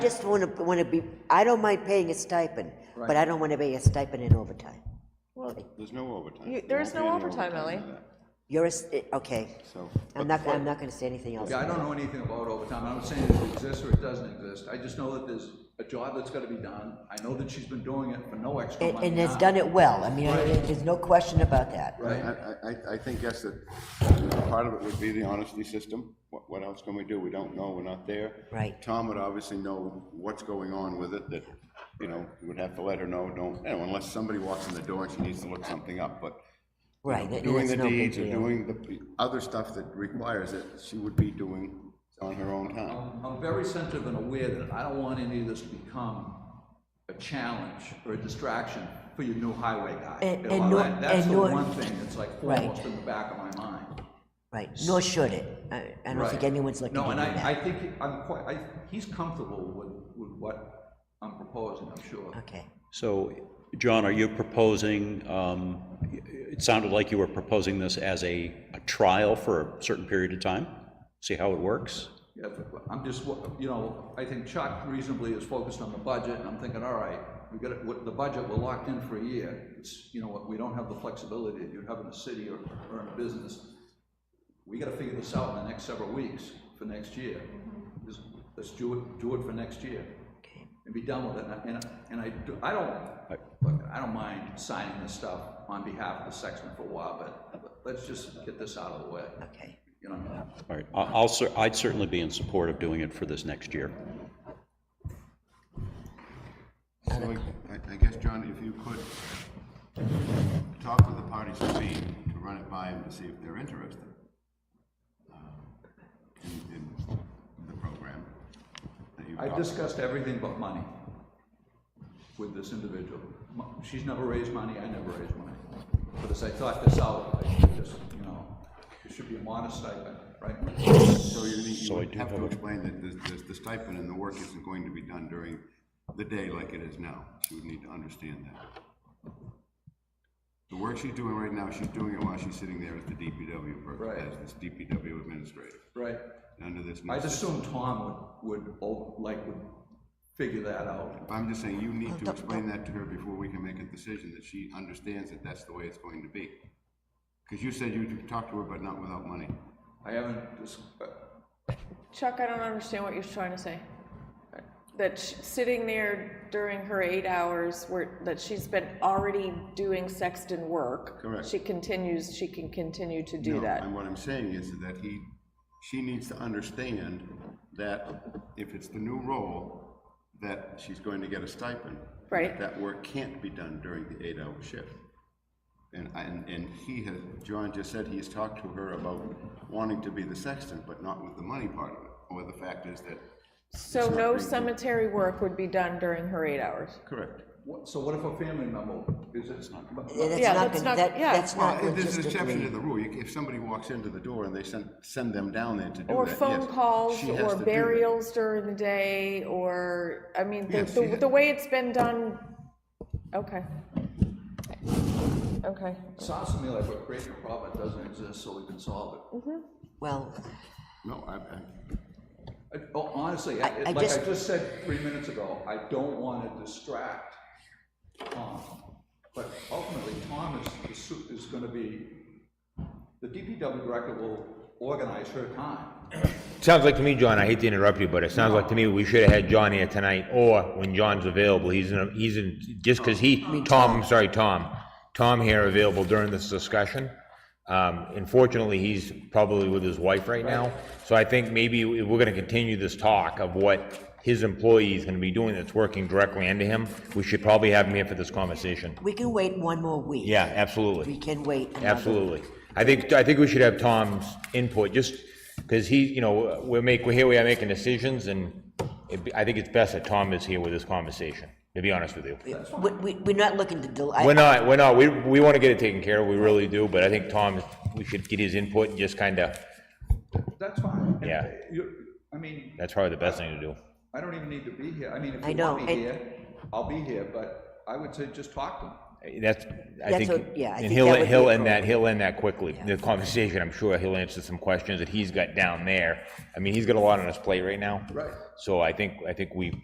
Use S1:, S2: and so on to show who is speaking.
S1: just want to, want to be, I don't mind paying a stipend, but I don't want to pay a stipend in overtime.
S2: There's no overtime.
S3: You- there is
S2: won't
S3: no
S2: be any
S3: overtime, Ellie.
S2: in that,
S1: You're, a s- eh, okay,
S2: So,
S1: I'm not, I'm not gonna say anything else.
S4: Yeah, I don't know anything about overtime, I'm not saying it exists or it doesn't exist, I just know that there's a job that's gotta be done, I know that she's been doing it for no extra
S1: And
S4: money.
S1: and has
S4: now.
S1: done it well, I mean, I- there's no question about that.
S2: I,
S4: Right,
S2: I, I- I think, yes, that part of it would be the honesty system. What, what else can we do? We don't know, we're not there.
S1: Right.
S2: Tom would obviously know what's going on with it, that, you know, we would have to let her know, don't, you know, unless somebody walks in the door and she needs to look something up, but
S1: Right, that-
S2: doing
S1: that's
S2: the
S1: no big
S2: deeds or
S1: deal.
S2: doing the other stuff that requires it, she would be doing on her own time.
S4: I'm, I'm very sensitive and aware that I don't want any of this to become a challenge or a distraction for your new highway guy.
S1: And-
S4: You know,
S1: and nor-
S4: that- That's
S1: and
S4: the
S1: nor-
S4: one thing that's like
S1: Right.
S4: foremost in the back of my mind.
S1: Right, nor should it, I, I don't think
S4: Right.
S1: anyone's looking to
S4: No,
S1: do
S4: and I, I
S1: that.
S4: think, I'm quite, I, he's comfortable with, with what I'm proposing, I'm sure.
S1: Okay,
S5: So, John, are you proposing, um, it sounded like you were proposing this as a a trial for a certain period of time? See how it works?
S4: Yeah, but I'm just, you know, I think Chuck reasonably is focused on the budget, and I'm thinking, all right, we got, it- with the budget, we're locked in for a year. It's, you know, what we don't have the flexibility that you have in a city or, or in a business. We gotta figure this out in the next several weeks for next year. Just, let's do it, do it for next year
S1: okay,
S4: and be done with it. And, I- and I, do- I don't, look, I don't mind signing this stuff on behalf of the Sexton for a while, but let's just get this out of the way.
S1: okay.
S4: You know what I mean?
S5: All right, I- I'll, cer- I'd certainly be in support of doing it for this next year.
S2: So I, I guess, John, if you could talk with the parties to be, to run it by them to see if they're interested um, in, in the program that you've
S4: I've
S2: talked
S4: discussed everything but money with this individual. Mo- She's never raised money, I never raised money. But as I thought this out, I should just, you know, it should be a modest stipend, right?
S2: So you need, you
S5: So I
S2: would
S5: do
S2: have
S5: have
S2: to
S5: a-
S2: explain that the, the- the stipend and the work isn't going to be done during the day like it is now. She would need to understand that. The work she's doing right now, she's doing it while she's sitting there at the DPW, per-
S4: Right.
S2: as this DPW administrator,
S4: Right?
S2: under this. new
S4: I'd
S2: system.
S4: assume Tom would, would, o- like, would figure that out.
S2: I'm just saying, you need to explain that to her before we can make a decision, that she understands that that's the way it's going to be. Because you said you'd talk to her, but not without money.
S4: I haven't just,
S3: Chuck, I don't understand what you're trying to say. That sh- sitting there during her eight hours, where, that she's been already doing sexton work.
S2: Correct.
S3: She continues, she can continue to do
S2: No,
S3: that.
S2: And what I'm saying is that he, she needs to understand that if it's the new role, that she's going to get a stipend.
S3: Right.
S2: That work can't be done during the eight-hour shift. And, and, and he has, John just said he's talked to her about wanting to be the sexton, but not with the money part of it, or the fact is that,
S3: So no cemetery work would be done during her eight hours.
S2: correct.
S4: what, so what if a family member is it? but-
S1: Yeah, That's
S3: Yeah,
S1: not,
S3: that's
S1: gonna-
S3: not-
S1: that,
S3: yeah.
S1: that's
S2: Well,
S1: not
S2: Uh, there's an exception to
S1: logistically,
S2: the rule. You- If somebody walks into the door and they send, send them down there to do that,
S3: Or phone
S2: yes,
S3: calls,
S2: she has
S3: or
S2: to do that.
S3: burials during the day, or, I mean, the,
S2: Yes,
S3: the,
S2: yeah.
S3: the way it's been done, okay. Okay,
S4: Sounds to me like we're creating a problem that doesn't exist so we can solve it.
S1: well,
S2: No, I, I,
S4: I- oh, Honestly,
S1: I-
S4: I-
S1: I
S4: like I
S1: just-
S4: just said three minutes ago, I don't want to distract Tom. But ultimately, Tom is, the su- is going to be, the DPW director will organize her time.
S6: Sounds like to me, John, I hate to interrupt you, but it sounds like to me we should have had John here tonight, or when John's available, he's in, a- he's in, just because he, Tom, I'm sorry, Tom, Tom here available during this discussion. Um, unfortunately, he's probably with his wife right now, so I think maybe we- we're gonna continue this talk of what his employee is gonna be doing that's working directly under him. We should probably have him here for this conversation.
S1: we can wait one more week.
S6: Yeah,
S1: We
S6: absolutely.
S1: can wait another.
S6: Absolutely. I think, I think we should have Tom's input, just because he, you know, we're make, we're here, we are making decisions, and it'd be- I think it's best that Tom is here with this conversation, to be honest with you.
S1: We, we, we're not looking to del, I,
S6: We're not, we're not, we, we want to get it taken care of, we really do, but I think Tom, we should get his input and just kind of,
S4: That's fine. And uh,
S6: Yeah.
S4: you- I mean,
S6: that's probably the best thing to do.
S4: I don't even need to be here. I mean, if
S1: I
S4: you want
S1: know,
S4: me
S1: and-
S4: here, I'll be here, but I would say just talk to him.
S6: That's, I
S1: That's
S6: think,
S1: what- yeah, I
S6: and
S1: think
S6: he'll,
S1: that would be
S6: he'll end that, he'll end that quickly. The conversation, I'm sure he'll answer some questions that he's got down there. I mean, he's got a lot on his plate right now.
S4: Right.
S6: So I think, I think we